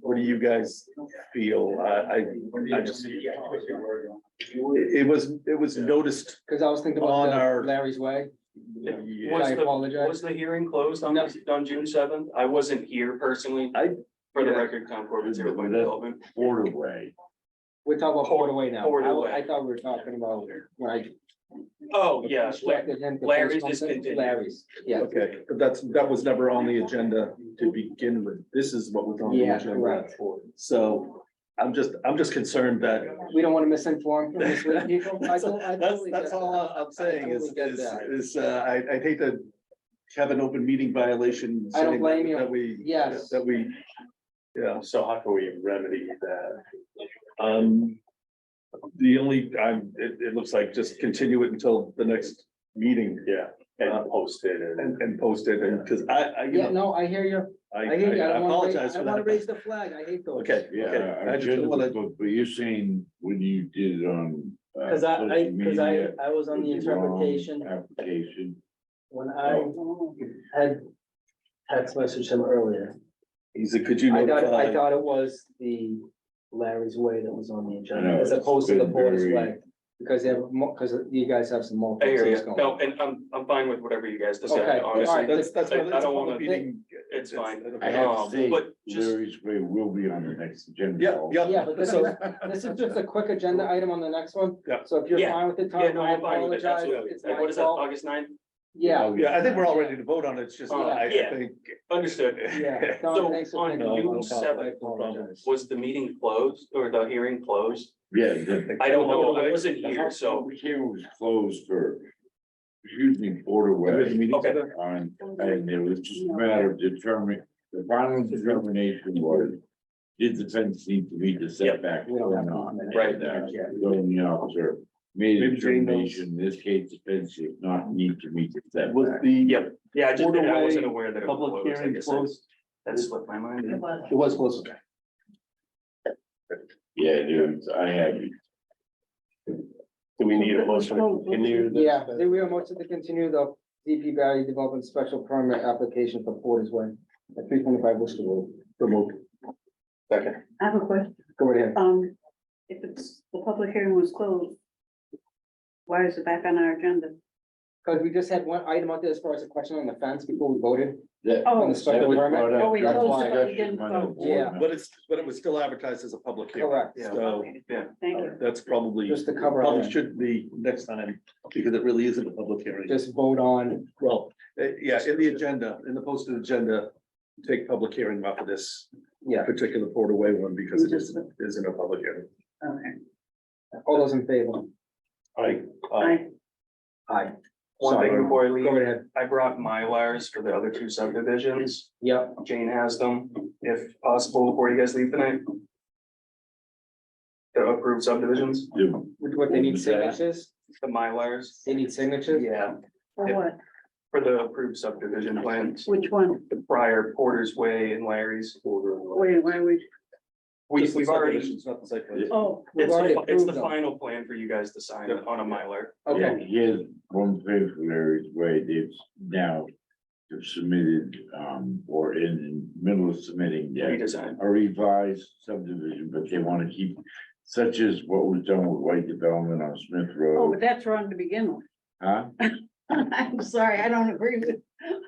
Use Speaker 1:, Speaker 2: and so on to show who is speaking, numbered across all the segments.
Speaker 1: What do you guys feel? I, I, I just, it, it was, it was noticed.
Speaker 2: Cause I was thinking
Speaker 1: On
Speaker 2: about
Speaker 1: our-
Speaker 2: the Larry's Way, and
Speaker 3: Was
Speaker 2: I
Speaker 3: the-
Speaker 2: apologize.
Speaker 3: Was the hearing closed on,
Speaker 2: No.
Speaker 3: on June seventh? I wasn't here personally.
Speaker 1: I-
Speaker 3: For the
Speaker 1: yeah.
Speaker 3: record, Concord was here with my development.
Speaker 1: Borderway.
Speaker 2: We're talking about Port Away now.
Speaker 3: Port Away.
Speaker 2: I, I thought we were talking about, when I
Speaker 3: Oh, yeah, La-
Speaker 2: distracted him. to
Speaker 3: Larry's
Speaker 2: post something.
Speaker 3: discontinued.
Speaker 2: Larry's, yeah.
Speaker 1: Okay, but that's, that was never on the agenda to begin with. This is what was on the
Speaker 2: Yeah,
Speaker 1: agenda.
Speaker 2: correct.
Speaker 1: So I'm just, I'm just concerned that.
Speaker 2: We don't wanna misinform, mislead people. I
Speaker 1: That's,
Speaker 2: don't- I totally
Speaker 1: that's
Speaker 2: get
Speaker 1: all
Speaker 2: that.
Speaker 1: I- I'm saying is,
Speaker 2: totally get
Speaker 1: is,
Speaker 2: that.
Speaker 1: is, uh, I, I'd hate to have an open meeting violation.
Speaker 2: I don't
Speaker 1: saying
Speaker 2: blame you.
Speaker 1: That we.
Speaker 2: Yes.
Speaker 1: That we, yeah.
Speaker 4: So how can we remedy that?
Speaker 1: Um, the only, I'm, it, it looks like just continue it until the next meeting Uh,
Speaker 4: Yeah, and post it and.
Speaker 1: and, and post it, and, cause I, I, you
Speaker 2: Yeah,
Speaker 1: know,
Speaker 2: no, I hear you.
Speaker 1: I,
Speaker 2: I hear you. I
Speaker 1: I
Speaker 2: don't wanna raise-
Speaker 1: apologize
Speaker 2: I
Speaker 1: for
Speaker 2: don't wanna
Speaker 1: that.
Speaker 2: raise the flag. I hate those.
Speaker 1: Okay, okay.
Speaker 5: Yeah,
Speaker 1: I
Speaker 5: I
Speaker 1: just don't
Speaker 5: just,
Speaker 1: wanna,
Speaker 5: but, but you're saying when you did it on. uh,
Speaker 6: Cause I, I,
Speaker 5: social
Speaker 6: cause I,
Speaker 5: media,
Speaker 6: I was on the
Speaker 5: with wrong
Speaker 6: interpretation
Speaker 5: Application.
Speaker 6: when I had text messaged him earlier.
Speaker 1: he said, could you
Speaker 6: I thought, I
Speaker 1: notify?
Speaker 6: thought it was the Larry's Way that was on the
Speaker 5: I
Speaker 6: agenda
Speaker 5: know,
Speaker 6: as opposed to
Speaker 5: it's
Speaker 6: the
Speaker 5: been
Speaker 6: Porter's
Speaker 5: very-
Speaker 6: Way.
Speaker 2: Because they have more, cause you guys have some more.
Speaker 3: I hear
Speaker 2: things
Speaker 3: you.
Speaker 2: going
Speaker 3: No,
Speaker 2: on.
Speaker 3: and I'm, I'm fine with whatever you guys
Speaker 2: Okay,
Speaker 3: decide,
Speaker 2: all
Speaker 3: honestly.
Speaker 2: right.
Speaker 1: That's, that's.
Speaker 3: I- I
Speaker 1: what- that's
Speaker 3: don't
Speaker 1: what the
Speaker 3: wanna-
Speaker 1: meeting-
Speaker 3: It's fine.
Speaker 5: I have
Speaker 3: Um,
Speaker 5: to say,
Speaker 3: but just-
Speaker 5: Larry's Way will be on the next agenda.
Speaker 1: Yeah, yeah.
Speaker 2: Yeah, but this is, this is just a quick agenda item on the next one.
Speaker 1: Yeah.
Speaker 2: So if you're
Speaker 3: Yeah.
Speaker 2: fine with it,
Speaker 3: Yeah,
Speaker 2: Tom,
Speaker 3: no,
Speaker 2: I
Speaker 3: I'm fine with it,
Speaker 2: apologize.
Speaker 3: absolutely.
Speaker 2: It's
Speaker 3: Like,
Speaker 2: my
Speaker 3: What is that,
Speaker 2: fault.
Speaker 3: August 9th?
Speaker 5: Oh,
Speaker 2: Yeah,
Speaker 1: Yeah, I think we're all ready to vote on it, it's just, I
Speaker 3: Oh, Yeah.
Speaker 1: think.
Speaker 3: Understood.
Speaker 2: yeah.
Speaker 3: So,
Speaker 2: Tom, thanks for
Speaker 3: on
Speaker 2: thinking about
Speaker 3: June
Speaker 2: that. I
Speaker 3: 7th,
Speaker 2: apologize.
Speaker 3: Was the meeting closed or the hearing closed?
Speaker 5: Yeah. the-
Speaker 3: I don't know, I wasn't here,
Speaker 5: The
Speaker 3: so.
Speaker 5: public hearing was closed for, excuse me, Porter Way.
Speaker 3: Okay.
Speaker 5: On, and it was just a matter of determining, the final determination was, did the fence need to meet the setback
Speaker 2: We don't
Speaker 5: or
Speaker 2: have
Speaker 5: not?
Speaker 2: to-
Speaker 3: Right.
Speaker 5: And, uh, Zoning officer made a
Speaker 1: Maybe Jane knows.
Speaker 5: determination, in this case, the fence did not need to meet the
Speaker 1: Was
Speaker 5: setback.
Speaker 1: the.
Speaker 3: Yep. Yeah, I just, I
Speaker 1: Orderway,
Speaker 3: wasn't aware that it was
Speaker 1: Public
Speaker 3: closed. I
Speaker 1: hearing
Speaker 3: guess that-
Speaker 1: closed.
Speaker 3: That slipped my mind.
Speaker 2: It was close.
Speaker 5: Yeah, dude, I have it.
Speaker 4: Do we need a motion to continue? this?
Speaker 2: Yeah, then we are motion to continue the DP Valley Development Special Permit application for Porter's Way at three twenty-five Worcester Road.
Speaker 1: Remote.
Speaker 7: I have a question,
Speaker 2: Go right ahead.
Speaker 7: um, if it's, the public hearing was closed. Why is it back on our agenda?
Speaker 2: Cause we just had one item out there as far as a question on the fence before we voted.
Speaker 5: That-
Speaker 2: On the
Speaker 5: that
Speaker 2: special
Speaker 5: was
Speaker 2: permit.
Speaker 5: brought up
Speaker 7: Oh, we
Speaker 5: during
Speaker 2: closed it,
Speaker 7: but we
Speaker 5: discussion
Speaker 7: didn't
Speaker 5: by the
Speaker 7: vote.
Speaker 5: board
Speaker 2: Yeah.
Speaker 5: member.
Speaker 1: But it's, but it was still advertised as a public hearing.
Speaker 2: Correct.
Speaker 3: Yeah.
Speaker 1: So
Speaker 7: Okay,
Speaker 3: yeah.
Speaker 7: Thank you.
Speaker 1: that's probably,
Speaker 2: Just to cover all
Speaker 1: probably
Speaker 2: that,
Speaker 1: should be next time, because it really isn't a public hearing.
Speaker 2: just vote on,
Speaker 1: Well, eh, yeah, in the agenda, in the posted agenda, take public hearing off of this
Speaker 2: yeah,
Speaker 1: particular Port Away one because it isn't, isn't a public hearing.
Speaker 7: Okay,
Speaker 2: all those in favor?
Speaker 1: I,
Speaker 7: I,
Speaker 2: Aye.
Speaker 3: One thing
Speaker 2: Sorry.
Speaker 3: before I
Speaker 2: Go
Speaker 3: leave,
Speaker 2: right ahead.
Speaker 3: I brought Mylars for the other two subdivisions.
Speaker 2: Yep,
Speaker 3: Jane has them, if possible, before you guys leave tonight. The approved subdivisions,
Speaker 5: The-
Speaker 2: What- what they need
Speaker 5: Was that-
Speaker 2: signatures,
Speaker 3: the Mylars.
Speaker 2: they need signatures?
Speaker 3: Yeah,
Speaker 7: for
Speaker 3: Yeah.
Speaker 7: what,
Speaker 3: for the approved subdivision plans,
Speaker 7: which one,
Speaker 3: the prior Porter's Way and Larry's.
Speaker 7: wait, why would,
Speaker 3: We, we've already,
Speaker 1: It's not the site plan.
Speaker 7: oh,
Speaker 2: We've
Speaker 3: it's,
Speaker 2: already
Speaker 3: the- it's
Speaker 2: approved
Speaker 3: the
Speaker 2: them.
Speaker 3: final plan for you guys to sign on a Mylar.
Speaker 2: Okay,
Speaker 5: Yeah, he has one Larry's way, they've now submitted, um, or in the middle of submitting their-
Speaker 3: redesign.
Speaker 5: a revised subdivision, but they wanna keep such as what was done with White Development on Smith
Speaker 7: oh, but
Speaker 5: Road,
Speaker 7: that's wrong to begin with.
Speaker 5: huh?
Speaker 7: I'm sorry, I don't agree with.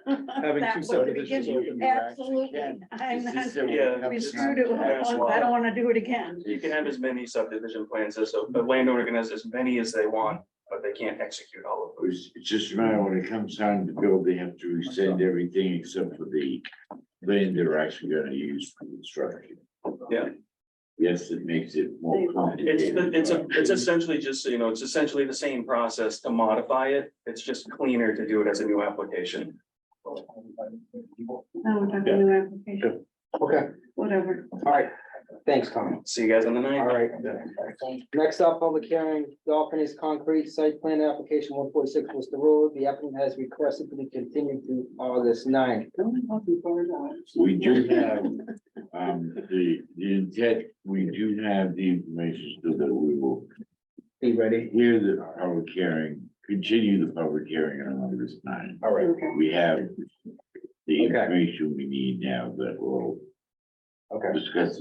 Speaker 1: Having
Speaker 7: that
Speaker 1: two
Speaker 7: way to
Speaker 1: subdivisions
Speaker 7: begin with.
Speaker 5: open, you actually
Speaker 7: Absolutely,
Speaker 5: can.
Speaker 7: I'm
Speaker 5: It's just
Speaker 7: not,
Speaker 5: that we
Speaker 3: Yeah.
Speaker 5: have
Speaker 7: we
Speaker 5: to-
Speaker 7: screwed it
Speaker 3: Yeah.
Speaker 7: once, I don't wanna do it again.
Speaker 3: You can have as many subdivision plans as, the landowner can have as many as they want, but they can't execute all of them.
Speaker 5: It's it's just a matter when it comes time to build, they have to rescind everything except for the land they're actually gonna use for construction.
Speaker 3: Yeah.
Speaker 5: Yes, it makes it more complicated.
Speaker 3: It's, the- it's, a
Speaker 5: but-
Speaker 3: it's essentially just, you know, it's essentially the same process to modify it. It's just cleaner to do it as a new application.
Speaker 7: No, we're talking new application,
Speaker 2: okay,
Speaker 7: whatever.
Speaker 2: all right, thanks, Tom.
Speaker 3: See you guys on the
Speaker 2: All
Speaker 3: ninth.
Speaker 2: right. Next up, public hearing, Dolphin's concrete site plan application one forty-six Worcester Road. The applicant has requested to be continued to August 9th.
Speaker 5: We do have, um, the, the intent, we do have the information so that we will
Speaker 2: Be ready.
Speaker 5: hear the public hearing, continue the public hearing on August nine.
Speaker 2: All right,
Speaker 7: Okay.
Speaker 5: We have the
Speaker 2: Okay.
Speaker 5: information we need now that will
Speaker 2: okay.
Speaker 5: discuss